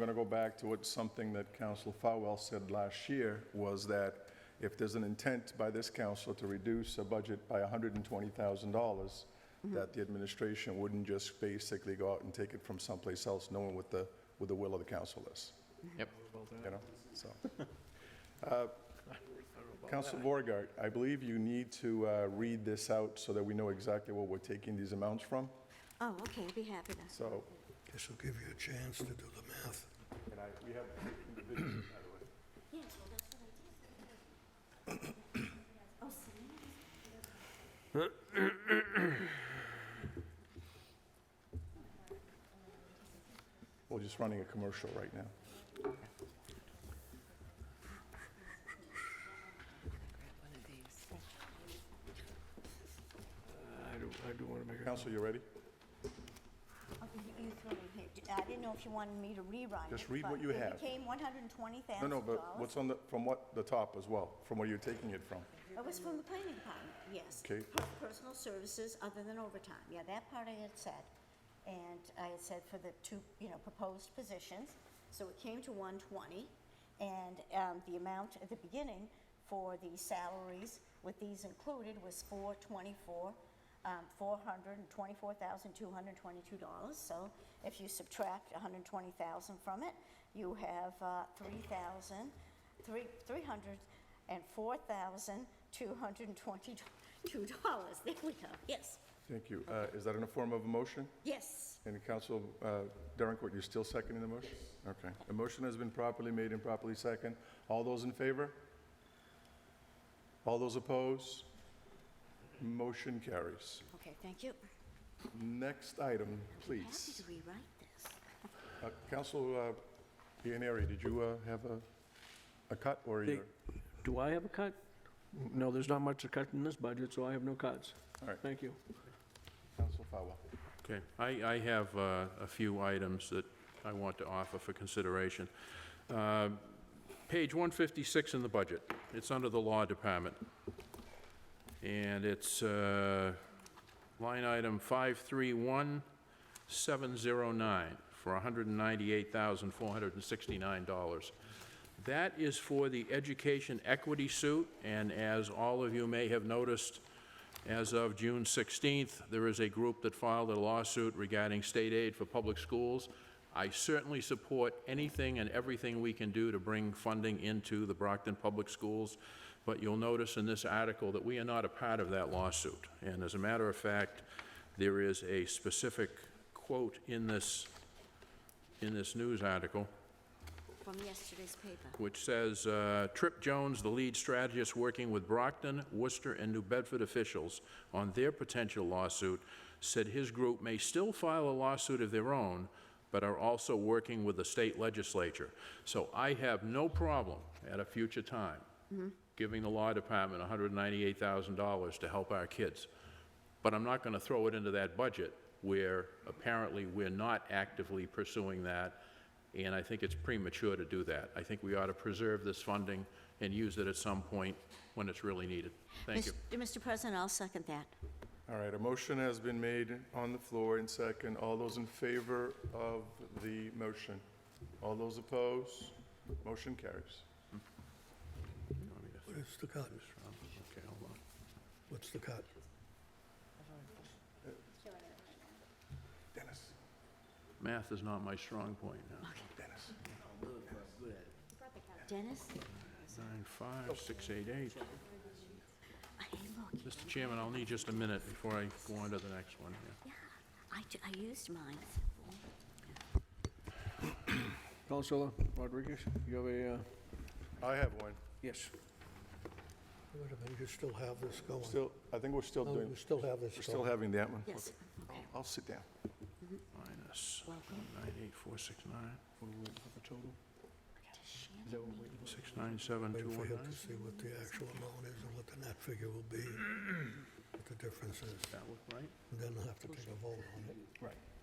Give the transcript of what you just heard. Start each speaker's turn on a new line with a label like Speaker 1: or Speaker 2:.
Speaker 1: I'm going to go back to what something that Council Falwell said last year, was that if there's an intent by this council to reduce a budget by $120,000, that the administration wouldn't just basically go out and take it from someplace else, knowing what the, what the will of the council is,
Speaker 2: Yep.
Speaker 1: you know, so. Council Borgard, I believe you need to uh, read this out so that we know exactly what we're taking these amounts from,
Speaker 3: Oh, okay, I'd be happy to.
Speaker 1: so.
Speaker 4: This will give you a chance to do the math.
Speaker 1: And I, we have individuals, by the way. We're just running a commercial right now.
Speaker 2: I do, I do want to make a...
Speaker 1: Council, you ready?
Speaker 5: Okay, you- you threw it here. D- I didn't know if you wanted me to rewrite it.
Speaker 1: Just read
Speaker 5: but
Speaker 1: what you have.
Speaker 5: It became $120,000.
Speaker 1: No, no, but what's on the, from what, the top as well, from where you're taking it from.
Speaker 5: It was from the planning department, yes.
Speaker 1: Okay.
Speaker 5: Per- Personal services other than overtime. Yeah, that part I had said. And I had said for the two, you know, proposed positions. So it came to 120. And um, the amount at the beginning for the salaries with these included was 424, um, $424,222. So if you subtract 120,000 from it, you have uh, 3,000, three- 300, and four thousand two hundred and twenty-two dollars. There we go. Yes,
Speaker 1: Thank you. Uh, Is that in a form of a motion?
Speaker 5: yes.
Speaker 1: And Council uh, Derrencourt, you're still seconding the motion? Okay. The motion has been properly made and properly second. All those in favor? All those opposed? Motion carries.
Speaker 5: Okay, thank you.
Speaker 1: Next item,
Speaker 5: Happy
Speaker 1: please.
Speaker 5: to rewrite this.
Speaker 1: Uh, Council uh, Ianary, did you uh, have a, a cut or
Speaker 2: Big.
Speaker 1: your?
Speaker 2: Do I have a cut? No, there's not much to cut in this budget, so I have no cuts.
Speaker 1: All right.
Speaker 2: Thank you.
Speaker 1: Council Falwell.
Speaker 6: Okay, I, I have uh, a few items that I want to offer for consideration. Uh, Page 156 in the budget, it's under the Law Department. And it's uh, line item 531709 for $198,469. That is for the education equity suit, and as all of you may have noticed, as of June 16th, there is a group that filed a lawsuit regarding state aid for public schools. I certainly support anything and everything we can do to bring funding into the Brockton Public Schools, but you'll notice in this article that we are not a part of that lawsuit. And as a matter of fact, there is a specific quote in this, in this news article
Speaker 3: From yesterday's paper.
Speaker 6: which says, uh, "Trip Jones, the lead strategist working with Brockton, Worcester, and New Bedford officials on their potential lawsuit, said his group may still file a lawsuit of their own, but are also working with the state legislature. So I have no problem at a future time giving the law department $198,000 to help our kids. But I'm not going to throw it into that budget where apparently we're not actively pursuing that, and I think it's premature to do that. I think we ought to preserve this funding and use it at some point when it's really needed. Thank you.
Speaker 3: Mr. President, I'll second that.
Speaker 1: All right, a motion has been made on the floor and second. All those in favor of the motion? All those opposed? Motion carries.
Speaker 4: What is the cut?
Speaker 6: Okay, hold on.
Speaker 4: What's the cut?
Speaker 1: Dennis,
Speaker 6: Math is not my strong point now.
Speaker 1: Dennis.
Speaker 3: Dennis?
Speaker 6: Nine, five, six, eight, eight.
Speaker 3: Hey, look,
Speaker 6: Mr. Chairman, I'll need just a minute before I go on to the next one here.
Speaker 3: yeah, I, ju- I used mine.
Speaker 2: Counselor Rodriguez, you have a, uh,
Speaker 1: I have one.
Speaker 2: yes.
Speaker 4: Wait a minute, you still have this going?
Speaker 1: Still, I think Oh, we're still
Speaker 4: No,
Speaker 1: doing,
Speaker 4: you still have this
Speaker 1: we're still
Speaker 4: going.
Speaker 1: having that one?
Speaker 3: Yes,
Speaker 1: I'll-
Speaker 3: okay.
Speaker 1: I'll sit down.
Speaker 6: Minus
Speaker 3: Welcome.
Speaker 6: nine, eight, four, six, nine,
Speaker 3: to Shannon.
Speaker 6: six, nine, seven, two,
Speaker 4: Waiting for
Speaker 6: one,
Speaker 4: you
Speaker 6: nine.
Speaker 4: to see what the actual amount is and what the net figure will be, what the difference is.
Speaker 6: That look right?
Speaker 4: And then I'll have to take a vote on it.
Speaker 1: Right.